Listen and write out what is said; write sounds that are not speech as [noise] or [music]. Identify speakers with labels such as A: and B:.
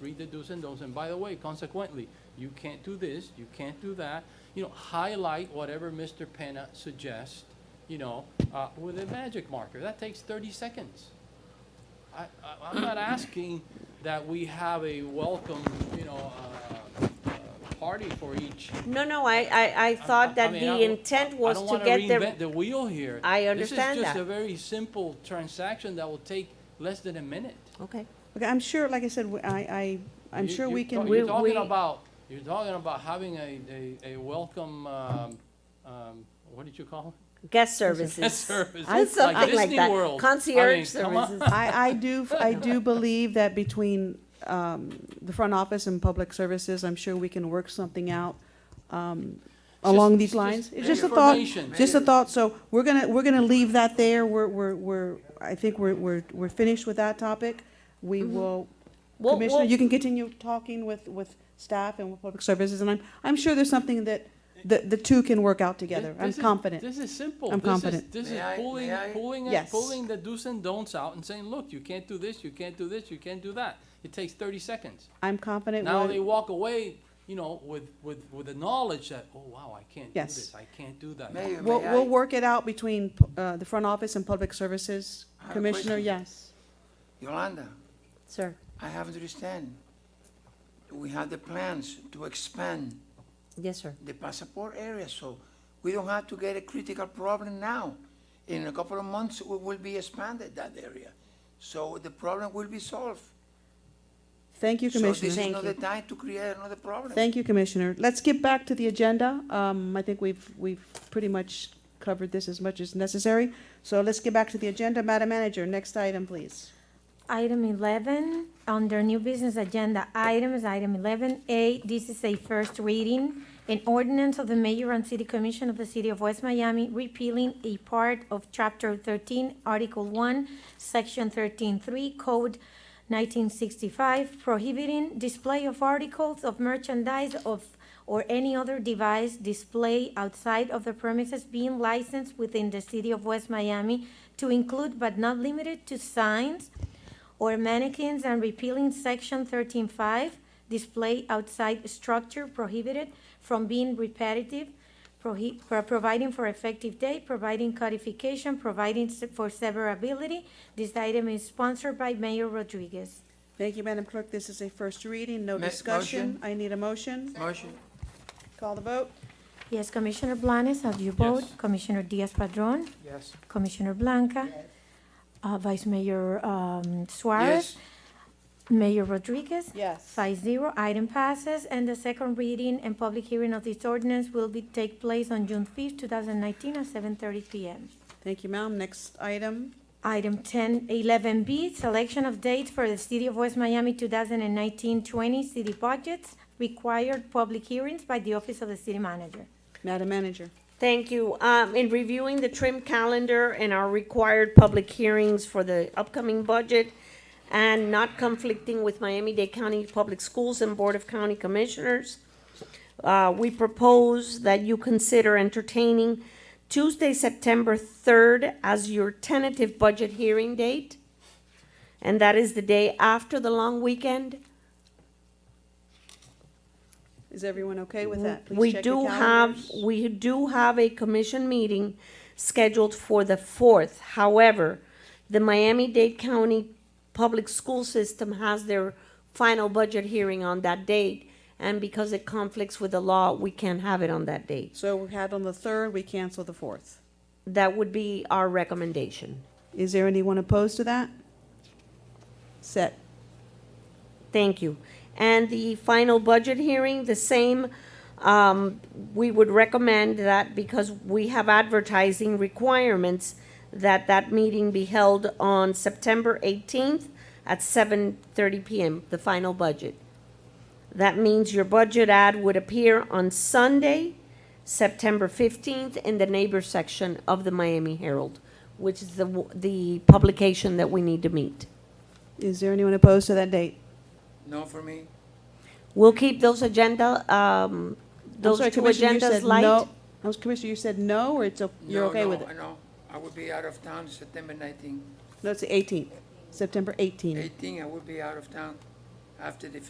A: read the do's and don'ts, and by the way, consequently, you can't do this, you can't do that. You know, highlight whatever Mr. Penna suggests, you know, uh, with a magic marker. That takes thirty seconds. I, I, I'm not asking that we have a welcome, you know, uh, uh, party for each.
B: No, no, I, I, I
A: I- I
B: thought that
A: mean, I
B: the
A: don't-
B: intent was
A: I don't
B: to
A: wanna
B: get the,
A: reinvent the wheel here.
B: I
A: This
B: understand
A: is just
B: that.
A: a very simple transaction that will take less than a minute.
B: okay.
C: Okay, I'm sure, like I said, we- I, I, I'm
A: You-
C: sure
A: you
C: we
A: talk-
C: can.
B: We-
A: You're talking
B: we-
A: about, you're talking about having a, a, a welcome, um, um, what did you call [laughs]
B: Guest
A: it? A
B: services.
A: service.
B: I- something like
A: Disney
B: that.
A: World. I
B: Concierge
A: mean, come on.
B: services.
C: I, I do,
A: [laughs]
C: I do believe that between um, the front office and public services, I'm sure we can work something out um,
A: It's
C: along
A: just-
C: these
A: it's
C: lines.
A: just
C: It's just a thought,
A: information.
C: just a thought, so we're gonna, we're gonna leave that there, we're, we're, we're, I think we're, we're, we're finished with that topic. We
A: Mm-hmm.
C: will,
B: We'll-
C: Commissioner,
B: we'll-
C: you can continue talking with, with staff and with public services, and I'm, I'm sure there's something that the, the two can work out together, I'm
A: This is-
C: confident.
A: This is simple.
C: I'm
A: This is-
C: confident.
A: This is
D: May I-
A: pulling,
D: may I?
A: pulling, it-
C: Yes.
A: pulling the do's and don'ts out and saying, look, you can't do this, you can't do this, you can't do that. It takes thirty seconds.
C: I'm confident.
A: Now
C: we'll-
A: they walk away, you know, with, with, with the knowledge that, oh, wow, I can't do
C: Yes.
A: this, I can't do that.
D: Mayor,
C: We'll,
D: may
C: we'll
D: I?
C: work it out between pu- uh, the front office and public services.
D: I have a
C: Commissioner,
D: question.
C: yes.
D: Yolanda,
B: Sir,
D: I have to understand. We have the plans to expand
B: yes, sir.
D: the passport area, so we don't have to get a critical problem now. In a couple of months, we will be expanded that area. So the problem will be solved.
C: Thank you,
D: So this
C: Commissioner.
D: is
B: Thank
D: not
B: you.
D: the time to create another problem.
C: Thank you, Commissioner. Let's get back to the agenda. Um, I think we've, we've pretty much covered this as much as necessary. So let's get back to the agenda. Madam Manager, next item, please.
E: Item 11, under new business agenda items, item 11A, this is a first reading. An ordinance of the mayor and city commission of the city of West Miami repealing a part of Chapter 13, Article 1, Section 13.3, Code 1965, prohibiting display of articles of merchandise of, or any other device display outside of the premises being licensed within the city of West Miami to include but not limited to signs, or mannequins and repealing section thirteen five, display outside structure prohibited from being repetitive, prohi- pro- providing for effective date, providing codification, providing se- for severability. This item is sponsored by Mayor Rodriguez.
C: Thank you, Madam Clerk. This is a first reading, no
D: Ma-
C: discussion.
D: motion?
C: I need a motion.
D: Motion?
C: Call the vote.
E: Yes, Commissioner Blanes, have you vote? Commissioner Diaz-Padrón?
D: Yes.
E: Commissioner Blanca? Uh, Vice Mayor, um, Suarez? Mayor Rodriguez?
C: Yes.
E: Five zero, item passes, and the second reading and public hearing of this ordinance will be, take place on June fifth, two thousand nineteen, at seven thirty PM.
C: Thank you, ma'am. Next item.
E: Item 10, 11B, selection of dates for the City of West Miami 2019-20 city budgets, required public hearings by the Office of the City Manager.
C: Madam Manager.
B: Thank you. Um, in reviewing the trim calendar and our required public hearings for the upcoming budget and not conflicting with Miami-Dade County Public Schools and Board of County Commissioners, uh, we propose that you consider entertaining Tuesday, September third as your tentative budget hearing date. And that is the day after the long weekend.
C: Is everyone okay with that? Please
B: We
C: check
B: do
C: your
B: have,
C: calendars.
B: we do have a commission meeting scheduled for the fourth. However, the Miami-Dade County Public School System has their final budget hearing on that date. And because it conflicts with the law, we can't have it on that date.
C: So we had on the third, we cancel the fourth.
B: That would be our recommendation.
C: Is there anyone opposed to that? Set.
B: Thank you. And the final budget hearing, the same, um, we would recommend that because we have advertising requirements, that that meeting be held on September eighteenth at seven thirty PM, the final budget. That means your budget ad would appear on Sunday, September fifteenth, in the neighbor section of the Miami Herald, which is the, w- the publication that we need to meet.
C: Is there anyone opposed to that date?
D: No for me?
B: We'll keep those agenda, um,
C: I'm
B: those
C: sorry,
B: two
C: Commissioner, you
B: agendas
C: said
B: light.
C: no. I was- Commissioner, you said no, or it's, o- you're
D: No,
C: okay
D: no,
C: with it?
D: No, I will be out of town September 19.
C: No, it's the eighteenth, September eighteenth.
D: 18, I will be out of town after the